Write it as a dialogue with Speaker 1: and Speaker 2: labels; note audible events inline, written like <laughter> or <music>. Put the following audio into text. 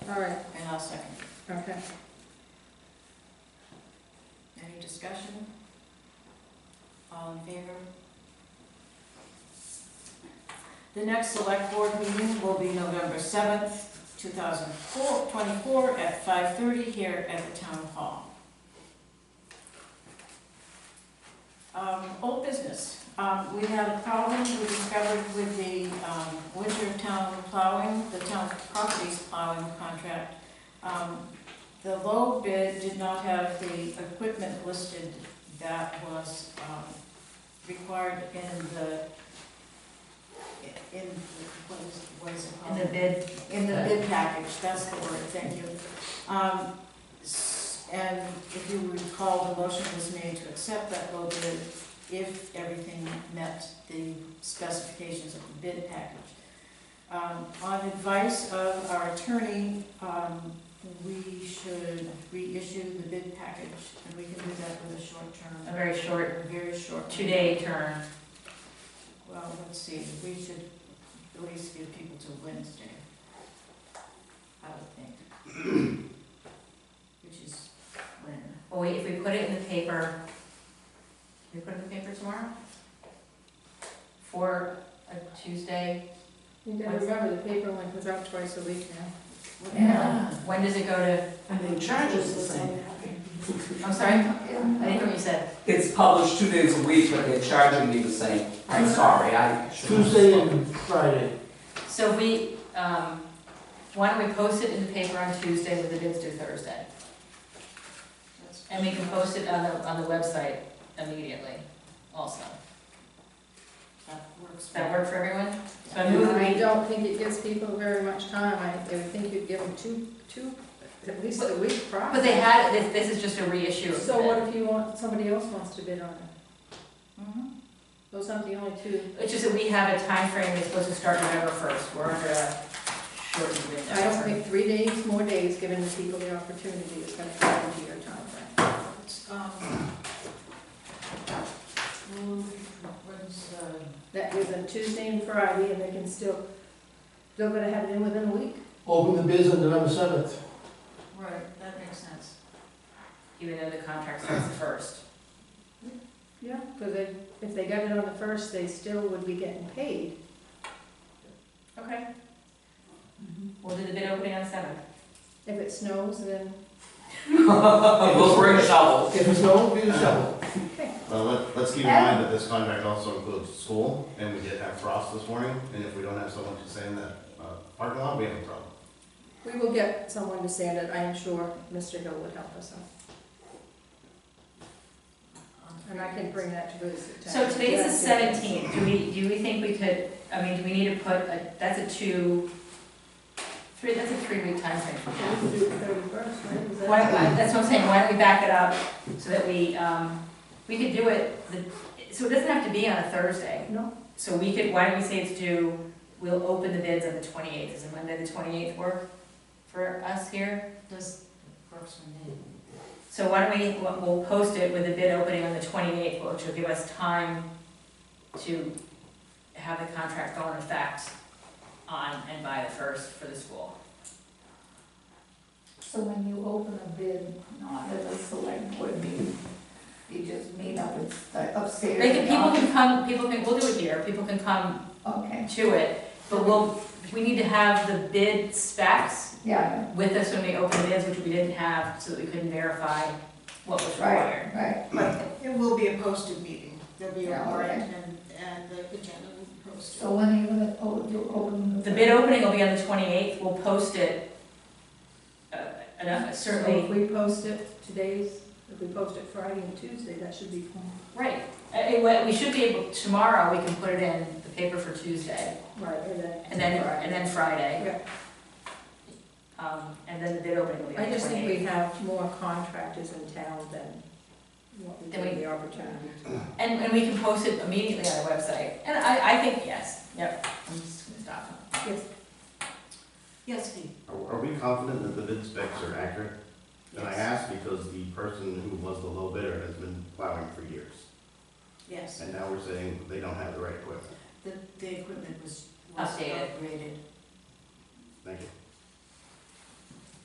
Speaker 1: all right,
Speaker 2: And I'll second.
Speaker 1: okay.
Speaker 2: Any discussion? All in favor? The next select board meeting will be November seventh, two thousand four, twenty-four, at five thirty here at the town hall. Um, old business, um, we had a problem we discovered with the, um, winter town plowing, the town properties plowing contract. Um, the low bid did not have the equipment listed that was um, required in the, in, what is, what is it called?
Speaker 3: In the bid,
Speaker 2: In the bid package, that's the word, thank you. Um, s- And if you recall, the motion was made to accept that low bid if everything met the specifications of the bid package. Um, On advice of our attorney, um, we should reissue the bid package, and we can do that with a short
Speaker 3: a
Speaker 2: term,
Speaker 3: very short
Speaker 2: very short.
Speaker 3: two-day term.
Speaker 2: Well, let's see, we should at least give people till Wednesday, I would think. <clears throat> Which is when,
Speaker 3: Well, wait, if we put it in the paper, can we put it in the paper tomorrow? For a Tuesday,
Speaker 1: You gotta remember, the paper link was out twice a week now.
Speaker 2: Yeah.
Speaker 3: when does it go to,
Speaker 4: And they charge us the same.
Speaker 3: I'm sorry, I didn't hear what you said.
Speaker 5: It's published two days a week, but they're charging me the same. I'm sorry, I should have
Speaker 4: Tuesday
Speaker 5: spoken.
Speaker 4: and Friday.
Speaker 3: So we, um, why don't we post it in the paper on Tuesday with the bids due Thursday?
Speaker 2: That's-
Speaker 3: And we can post it on the, on the website immediately also.
Speaker 2: That works.
Speaker 3: Does that work for everyone? So I move that
Speaker 1: I
Speaker 3: we,
Speaker 1: don't think it gives people very much time, I, I would think you'd give them two, two, at least a week prior.
Speaker 3: but they had, this, this is just a reissue of the
Speaker 1: So
Speaker 3: bid.
Speaker 1: what if you want, somebody else wants to bid on it?
Speaker 2: Mhm.
Speaker 1: Those aren't the only two.
Speaker 3: It's just that we have a time frame that's supposed to start November first, we're under a shortened window.
Speaker 1: I don't think three days, more days, giving the people the opportunity is gonna come into your timeframe.
Speaker 2: It's, um, move, when's, uh,
Speaker 1: That gives them Tuesday and Friday, and they can still, they're gonna have it in within a week.
Speaker 4: Open the bids on November seventh.
Speaker 2: right, that makes sense.
Speaker 3: Even though the contract starts the first.
Speaker 1: Yeah. Because they, if they got it on the first, they still would be getting paid.
Speaker 3: Okay. We'll do the bid opening on seventh.
Speaker 1: If it snows, then,
Speaker 5: <laughs> We'll bring shovels.
Speaker 4: If it's no, be the shovel.
Speaker 1: okay.
Speaker 6: Well, let, let's keep in mind that this contract also includes school, and we did have frost this morning, and if we don't have someone to sand that, uh, parking lot, we have a problem.
Speaker 1: We will get someone to sand it, I am sure Mr. Hill would help us out,
Speaker 2: Um,
Speaker 1: and I can bring that to his attention.
Speaker 3: So today's the
Speaker 1: Yeah.
Speaker 3: seventeenth, do we, do we think we could, I mean, do we need to put, a? that's a two, three, that's a three-week time frame.
Speaker 1: We can do it thirty-first, right? Is that-
Speaker 3: Why, I- that's what I'm saying, why don't we back it up so that we, um, we could do it, the- so it doesn't have to be on a Thursday.
Speaker 1: No.
Speaker 3: So we could, why don't we say it's due, we'll open the bids on the twenty-eighth, is it Monday the twenty-eighth work for us here?
Speaker 2: Does, works for me.
Speaker 3: So why don't we, we'll we'll post it with the bid opening on the twenty-eighth, which will give us time to have the contract go in effect on and by the first for the school.
Speaker 7: So when you open a bid, not at a select board meeting, you just meet up at the upstairs.
Speaker 3: They can, people can come, people can, we'll do it here, people can come
Speaker 7: Okay,
Speaker 3: to it, but we'll, we need to have the bid specs
Speaker 7: yeah,
Speaker 3: with us when we open bids, which we didn't have, so that we couldn't verify what was required.
Speaker 7: right, right,
Speaker 2: It will be a posted meeting, there'll be a
Speaker 7: Yeah,
Speaker 2: warrant and, and the agenda will be posted.
Speaker 7: so when are you gonna, oh, you open the.
Speaker 3: The bid opening will be on the twenty-eighth, we'll post it, uh, enough,
Speaker 1: So If
Speaker 3: certainly,
Speaker 1: we post it today's, if we post it Friday and Tuesday, that should be fine.
Speaker 3: right. Uh, it- what- we should be able, tomorrow, we can put it in the paper for Tuesday,
Speaker 1: Right, and then.
Speaker 3: and then, and then Friday.
Speaker 1: Yeah.
Speaker 3: Um, and then the bid opening will be on
Speaker 1: I
Speaker 3: the
Speaker 1: just think we
Speaker 3: twenty-eighth.
Speaker 1: have more contractors in town than what we
Speaker 3: Than
Speaker 1: give
Speaker 3: we-
Speaker 1: the opportunity to.
Speaker 3: And, and we can post it immediately on our website, and I, I think, yes, yep, I'm just gonna stop.
Speaker 1: Yes,
Speaker 2: Yes, Steve?
Speaker 6: Are, are we confident that the bid specs are accurate? And I ask because the person who was the low bidder has been plowing for years,
Speaker 2: Yes.
Speaker 6: and now we're saying they don't have the right equipment.
Speaker 2: The, the equipment was, was
Speaker 3: Updated.
Speaker 2: upgraded.
Speaker 6: Thank you.